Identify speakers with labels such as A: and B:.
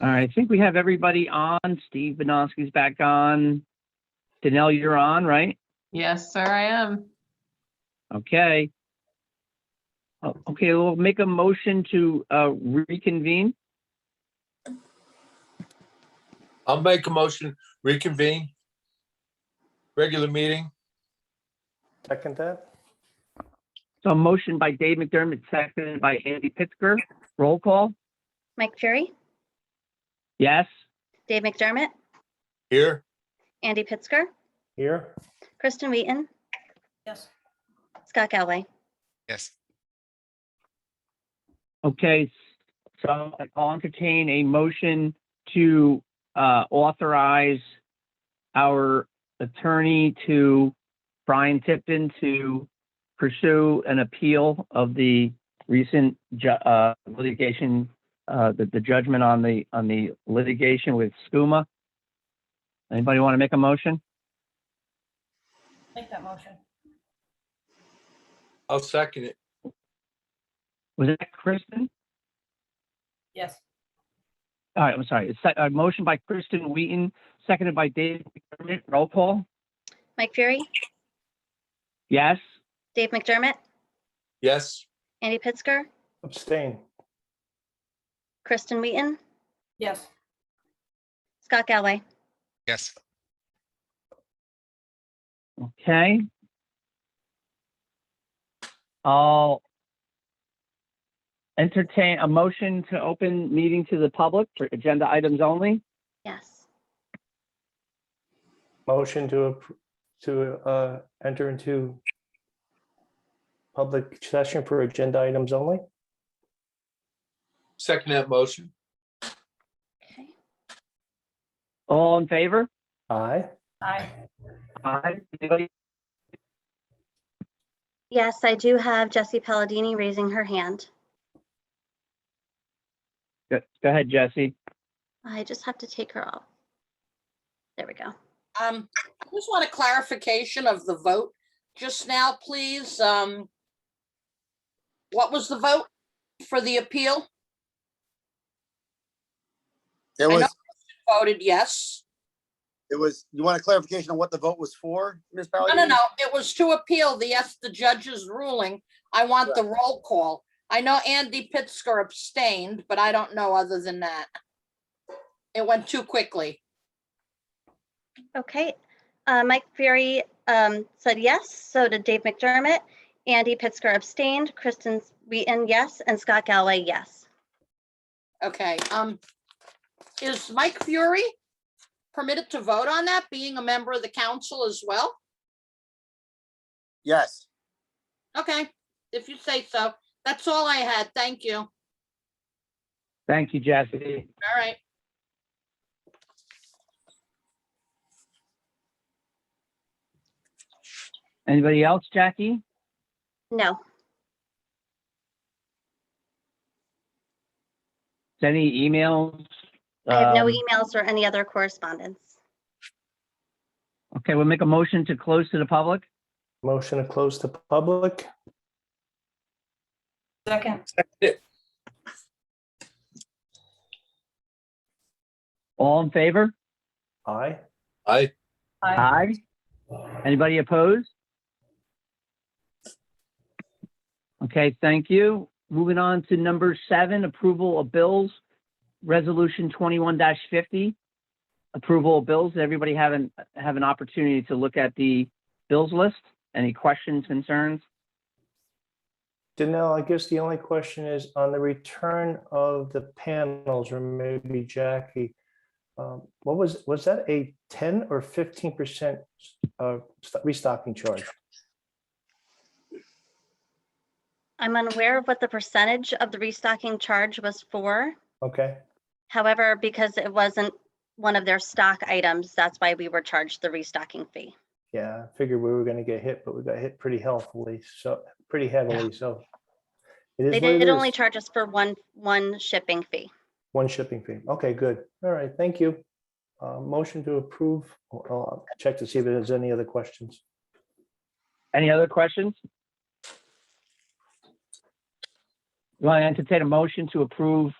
A: All right, I think we have everybody on. Steve Benoski's back on. Danell, you're on, right?
B: Yes, sir, I am.
A: Okay. Oh, Okay, we'll make a motion to uh, reconvene.
C: I'll make a motion, reconvene. Regular meeting,
D: Second that?
A: So a motion by Dave McDermott, seconded by Andy Pittsger. Roll call?
E: Mike Fury,
A: Yes?
E: Dave McDermott,
C: here,
E: Andy Pittsger,
D: Here?
E: Kristen Wheaton,
F: Yes.
E: Scott Galway.
G: Yes.
A: Okay, so I'll entertain a motion to uh, authorize our attorney to, Brian Tipton, to pursue an appeal of the recent ju- uh, litigation, uh, the the judgment on the, on the litigation with SCUMA. Anybody want to make a motion?
F: Make that motion.
C: I'll second it,
A: Was that Kristen?
F: Yes.
A: All right, I'm sorry. It's se- A motion by Kristen Wheaton, seconded by Dave McDermott. Roll call?
E: Mike Fury,
A: Yes?
E: Dave McDermott,
C: yes,
E: Andy Pittsger,
D: Abstain.
E: Kristen Wheaton,
F: Yes.
E: Scott Galway.
G: Yes.
A: Okay. I'll entertain a motion to open meeting to the public for agenda items only.
E: Yes.
D: Motion to, appro- to uh, enter into public session for agenda items only?
C: second that motion,
E: Okay.
A: All in favor?
D: Aye.
F: Aye.
A: Aye. Anybody?
E: Yes, I do have Jesse Palladini raising her hand.
A: Go go ahead, Jesse.
E: I just have to take her off. There we go.
H: Um, I just want a clarification of the vote just now, please. Um, what was the vote for the appeal?
I: There
H: I know-
I: was,
H: Voted yes.
I: it was, you want a clarification on what the vote was for, Ms.
H: No,
I: Palladini?
H: no, no, it was to appeal the, yes, the judge's ruling. I want the roll call. I know Andy Pittsger abstained, but I don't know other than that. It went too quickly.
E: Okay. Uh, Mike Fury um, said yes, so did Dave McDermott. Andy Pittsger abstained, Kristen Wheaton, yes, and Scott Galway, yes.
H: Okay, um, is Mike Fury permitted to vote on that, being a member of the council as well?
I: Yes,
H: Okay, if you say so. That's all I had. Thank you. All
A: Thank you, Jesse.
H: right.
A: Anybody else, Jackie?
E: No,
A: Any emails?
E: I have no e-
A: Um,
E: emails or any other correspondence.
A: Okay, we'll make a motion to close to the public.
D: Motion to close to public?
F: Second.
A: All in favor?
D: Aye.
C: aye,
F: Aye.
A: Aye. Anybody opposed? Okay, thank you. Moving on to number seven, approval of bills. Resolution twenty-one fifty. Approval of bills. Did Everybody have an, have an opportunity to look at the bills list? Any questions, concerns?
D: Danell, I guess the only question is on the return of the panels, or maybe Jackie. um, What was, was that a 10 or 15% uh, st- restocking charge?
E: I'm unaware of what the percentage of the restocking charge was for.
D: Okay,
E: However, because it wasn't one of their stock items, that's why we were charged the restocking fee.
D: yeah, I figured we were going to get hit, but we got hit pretty healthily, so, pretty heavily, so. it is
E: They
D: what it
E: did only
D: is.
E: charge us for one, one shipping fee.
D: One shipping fee. Okay, good. All right, thank you. Uh, Motion to approve. I'll- I'll check to see if there's any other questions.
A: Any other questions? You want to entertain a motion to approve